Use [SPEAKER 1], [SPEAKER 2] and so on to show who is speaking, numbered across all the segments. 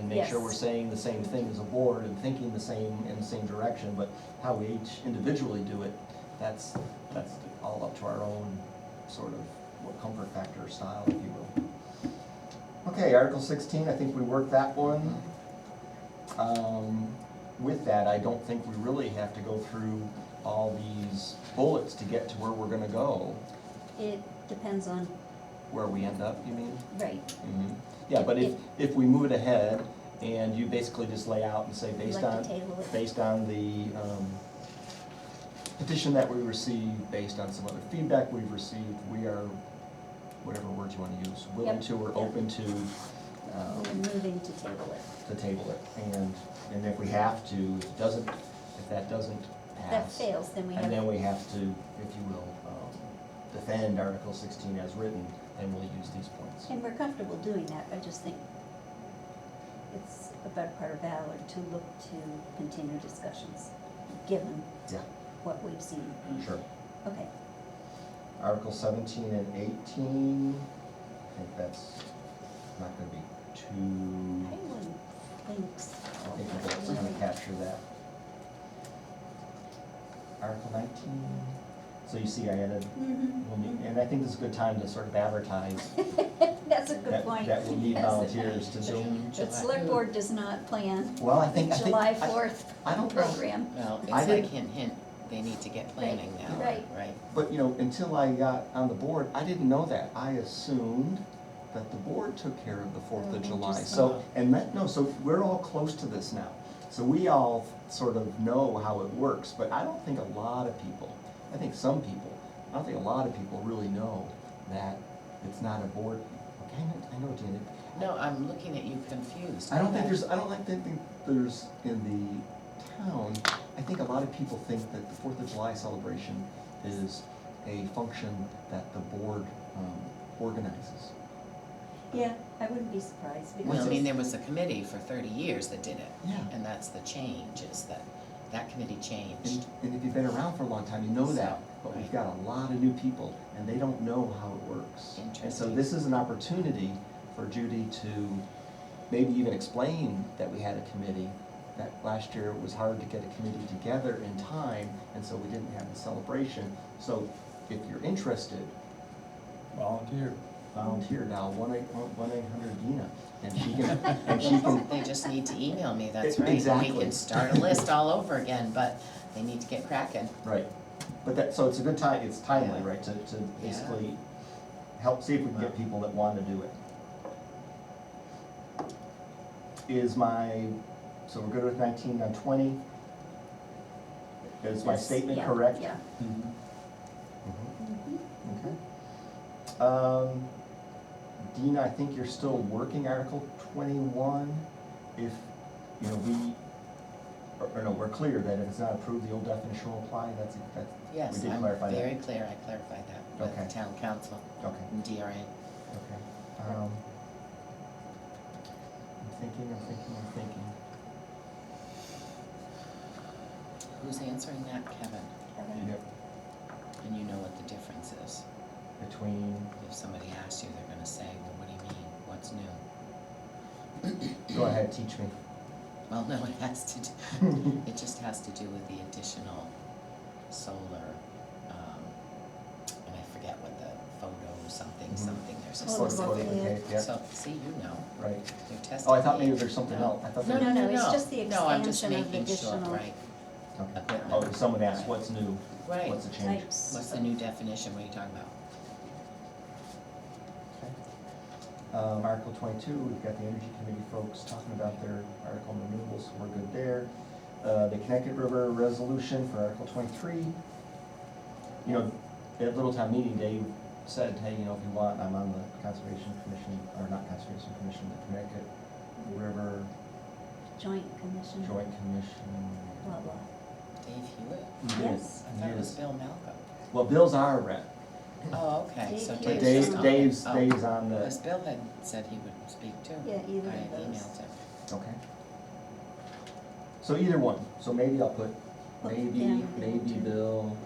[SPEAKER 1] make sure
[SPEAKER 2] Yes.
[SPEAKER 1] we're saying the same thing as a board and thinking the same, in the same direction, but how we each individually do it, that's, that's all up to our own sort of what comfort factor style, if you will. Okay, Article sixteen, I think we worked that one. Um, With that, I don't think we really have to go through all these bullets to get to where we're gonna go,
[SPEAKER 2] It depends on,
[SPEAKER 1] where we end up, you mean?
[SPEAKER 2] right,
[SPEAKER 1] Mhm. Yeah, but if, if we move it ahead and you basically just lay out and say
[SPEAKER 2] We'd
[SPEAKER 1] based
[SPEAKER 2] like
[SPEAKER 1] on,
[SPEAKER 2] to table it.
[SPEAKER 1] based on the um, petition that we received, based on some other feedback we've received, we are, whatever words you want to use, willing
[SPEAKER 2] Yep,
[SPEAKER 1] to or
[SPEAKER 2] yep.
[SPEAKER 1] open to, um,
[SPEAKER 2] we're moving to table it.
[SPEAKER 1] to table it. And, and if we have to, if it doesn't, if that doesn't
[SPEAKER 2] If
[SPEAKER 1] pass.
[SPEAKER 2] that fails, then we have.
[SPEAKER 1] And then we have to, if you will, um, defend Article sixteen as written, then we'll use these points.
[SPEAKER 2] And we're comfortable doing that, I just think it's a better part of valor to look to continue discussions, given
[SPEAKER 1] Yeah,
[SPEAKER 2] what we've seen.
[SPEAKER 1] sure.
[SPEAKER 2] Okay,
[SPEAKER 1] Article seventeen and eighteen, I think that's not gonna be
[SPEAKER 2] I
[SPEAKER 1] too,
[SPEAKER 2] wouldn't think so.
[SPEAKER 1] Mm-hmm. I think that's gonna capture that. Article nineteen, so you see I added,
[SPEAKER 2] Mhm,
[SPEAKER 1] we'll need- and I think this is a good time to sort of advertise
[SPEAKER 2] mhm. That's a good
[SPEAKER 1] that,
[SPEAKER 2] point.
[SPEAKER 1] that we'll need
[SPEAKER 2] Yes.
[SPEAKER 1] volunteers to Zoom.
[SPEAKER 2] The select board does not plan
[SPEAKER 1] Well, I think, I think.
[SPEAKER 2] July
[SPEAKER 1] I-
[SPEAKER 2] fourth
[SPEAKER 1] I don't know.
[SPEAKER 2] program.
[SPEAKER 3] Well, it's
[SPEAKER 1] I
[SPEAKER 3] like
[SPEAKER 1] think-
[SPEAKER 3] hint, hint, they need to get planning now,
[SPEAKER 2] right.
[SPEAKER 3] right?
[SPEAKER 1] But, you know, until I got on the board, I didn't know that. I assumed that the board took care of the Fourth
[SPEAKER 2] Oh,
[SPEAKER 1] of July.
[SPEAKER 2] interesting.
[SPEAKER 1] So, and that, no, so we're all close to this now. So we all sort of know how it works, but I don't think a lot of people, I think some people, I don't think a lot of people really know that it's not a board. Okay, I know, I know, Janet.
[SPEAKER 3] No, I'm looking at you confused.
[SPEAKER 1] I don't think there's, I don't like, think think there's in the town, I think a lot of people think that the Fourth of July celebration is a function that the board um, organizes.
[SPEAKER 2] Yeah, I wouldn't be surprised
[SPEAKER 3] Well, I
[SPEAKER 2] because.
[SPEAKER 3] mean, there was a committee for thirty years that did it.
[SPEAKER 1] Yeah.
[SPEAKER 3] And that's the change, is that, that committee
[SPEAKER 1] And,
[SPEAKER 3] changed.
[SPEAKER 1] and if you've been around for a long time, you know that, but we've
[SPEAKER 3] Right.
[SPEAKER 1] got a lot of new people, and they don't know how it works. And so
[SPEAKER 3] Interesting.
[SPEAKER 1] this is an opportunity for Judy to maybe even explain that we had a committee, that last year it was hard to get a committee together in time, and so we didn't have the celebration. So if you're interested,
[SPEAKER 4] Volunteer.
[SPEAKER 1] volunteer now, one eight, one eight hundred Dina, and she can, and she can,
[SPEAKER 3] They just need to email me, that's
[SPEAKER 1] E-
[SPEAKER 3] right. We
[SPEAKER 1] exactly.
[SPEAKER 3] can start a list all over again, but they need to get cracking.
[SPEAKER 1] Right, but that, so it's a good time, it's timely,
[SPEAKER 3] Yeah.
[SPEAKER 1] right, to, to basically help, see if we can get people that want to do it. Is my, so we're good with nineteen and twenty? Is my
[SPEAKER 2] Yes,
[SPEAKER 1] statement
[SPEAKER 2] yeah,
[SPEAKER 1] correct?
[SPEAKER 2] Yeah.
[SPEAKER 1] Mhm,
[SPEAKER 2] Mhm.
[SPEAKER 1] Okay. Um, Dina, I think you're still working Article twenty-one, if, you know, we, or, or no, we're clear that if it's not approved, the old definition will apply, that's, that's, we
[SPEAKER 3] Yes,
[SPEAKER 1] did
[SPEAKER 3] I'm
[SPEAKER 1] clarify that.
[SPEAKER 3] very clear, I clarified that with
[SPEAKER 1] Okay.
[SPEAKER 3] the town council
[SPEAKER 1] Okay.
[SPEAKER 3] and DRA.
[SPEAKER 1] Okay, um, I'm thinking, I'm thinking, I'm thinking.
[SPEAKER 3] Who's answering that, Kevin?
[SPEAKER 2] Kevin?
[SPEAKER 3] And you know what the difference is.
[SPEAKER 1] Between,
[SPEAKER 3] If somebody asks you, they're gonna say, well, what do you mean, what's new?
[SPEAKER 1] go ahead, teach me.
[SPEAKER 3] Well, no, it has to, do. it just has to do with the additional solar, um, and I forget what the photo, something,
[SPEAKER 1] Mhm.
[SPEAKER 3] something, there's a
[SPEAKER 2] Photo
[SPEAKER 3] something.
[SPEAKER 2] Photovoltaic.
[SPEAKER 1] Photovoltaic, yeah,
[SPEAKER 3] So, see, you know,
[SPEAKER 1] right.
[SPEAKER 3] you're testing
[SPEAKER 1] Oh, I thought
[SPEAKER 3] me.
[SPEAKER 1] maybe there's something else, I thought
[SPEAKER 3] No,
[SPEAKER 1] there,
[SPEAKER 2] No,
[SPEAKER 3] no,
[SPEAKER 2] no,
[SPEAKER 3] no,
[SPEAKER 2] it's
[SPEAKER 3] no.
[SPEAKER 2] just the
[SPEAKER 3] No, I'm just
[SPEAKER 2] expansion of
[SPEAKER 3] making sure,
[SPEAKER 2] additional-
[SPEAKER 3] right,
[SPEAKER 1] okay.
[SPEAKER 3] equipment.
[SPEAKER 1] Oh, someone asked, what's new?
[SPEAKER 3] Right.
[SPEAKER 1] What's the change?
[SPEAKER 2] Types.
[SPEAKER 3] What's the new definition, what are you talking about?
[SPEAKER 1] Okay. Um, Article twenty-two, we've got the energy committee folks talking about their article on renewables, so we're good there. Uh, the Connecticut River resolution for Article twenty-three. You know, at Little Town Meeting, Dave said, hey, you know, if you want, I'm on the Conservation Commission, or not Conservation Commission, the Connecticut River
[SPEAKER 2] Joint commission.
[SPEAKER 1] Joint Commission.
[SPEAKER 2] Mm-hmm. Blah, blah.
[SPEAKER 3] Dave Hewitt?
[SPEAKER 2] Yes.
[SPEAKER 3] I thought it was Bill Malcolm.
[SPEAKER 1] Well, Bill's our rep,
[SPEAKER 3] Oh, okay, so
[SPEAKER 2] Dave
[SPEAKER 1] but
[SPEAKER 2] Hewitt's
[SPEAKER 1] Dave,
[SPEAKER 2] on
[SPEAKER 3] Dave's on.
[SPEAKER 2] it.
[SPEAKER 1] Dave's,
[SPEAKER 3] Oh.
[SPEAKER 1] Dave's on the.
[SPEAKER 3] Because Bill had said he would speak too.
[SPEAKER 2] Yeah, either
[SPEAKER 3] I
[SPEAKER 2] of those.
[SPEAKER 3] emailed him.
[SPEAKER 1] Okay. So either one, so maybe I'll put,
[SPEAKER 2] Put
[SPEAKER 1] maybe,
[SPEAKER 2] down Bill
[SPEAKER 1] maybe
[SPEAKER 2] too.
[SPEAKER 1] Bill.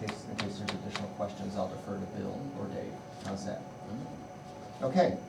[SPEAKER 1] In case, in case there's additional questions, I'll defer to Bill or Dave, how's that?
[SPEAKER 3] Mm.
[SPEAKER 1] Okay.